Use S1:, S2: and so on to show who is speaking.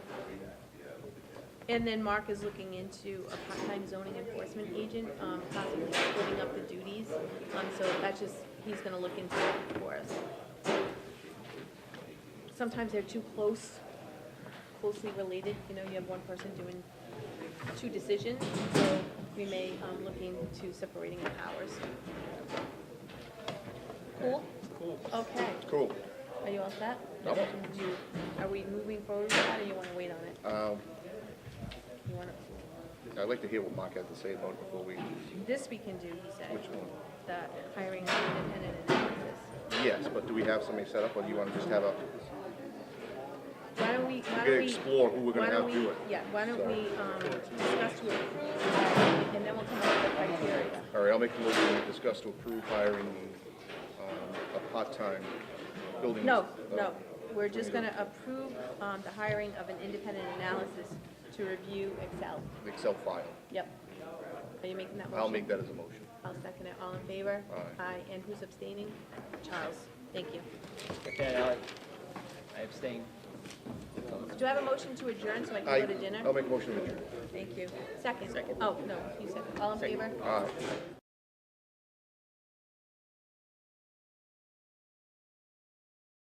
S1: And then Mark is looking into a part-time zoning enforcement agent, um, possibly splitting up the duties. Um, so that's just, he's gonna look into it for us. Sometimes they're too close, closely related, you know, you have one person doing two decisions, so we may, um, look into separating the powers. Cool? Cool. Okay,
S2: Cool.
S1: are you all set?
S2: Yep.
S1: Do you- Are we moving forward with that, or you wanna wait on it?
S2: Um,
S1: You wanna?
S2: I'd like to hear what Mark had to say about it before we,
S1: This we can do, he said.
S2: Which one?
S1: The hiring of independent analysis.
S2: yes, but do we have somebody set up or do you want to just have a,
S1: Why don't we,
S2: we
S1: why
S2: gotta
S1: don't we?
S2: explore who we're
S1: why
S2: gonna
S1: don't
S2: have
S1: we-
S2: do it?
S1: Yeah, why don't
S2: So-
S1: we, um, discuss to approve, and then we'll come up with the criteria.
S2: All right, I'll make a motion to discuss to approve hiring um, a part-time building.
S1: No,
S2: uh,
S1: no, we're just gonna approve, um, the hiring of an independent analysis to review Excel.
S2: Excel file.
S1: Yep. Are you making that motion?
S2: I'll make that as a motion.
S1: I'll second it. All in favor?
S2: Aye.
S1: and who's abstaining? Charles. Thank you.
S3: Okay, Ally. I abstain.
S1: Do I have a motion to adjourn so I
S2: I- Oh,
S1: can go to dinner?
S2: I'll make a motion to adjourn.
S1: Thank you. Second. Oh, no, you said, all in favor?
S2: Aye.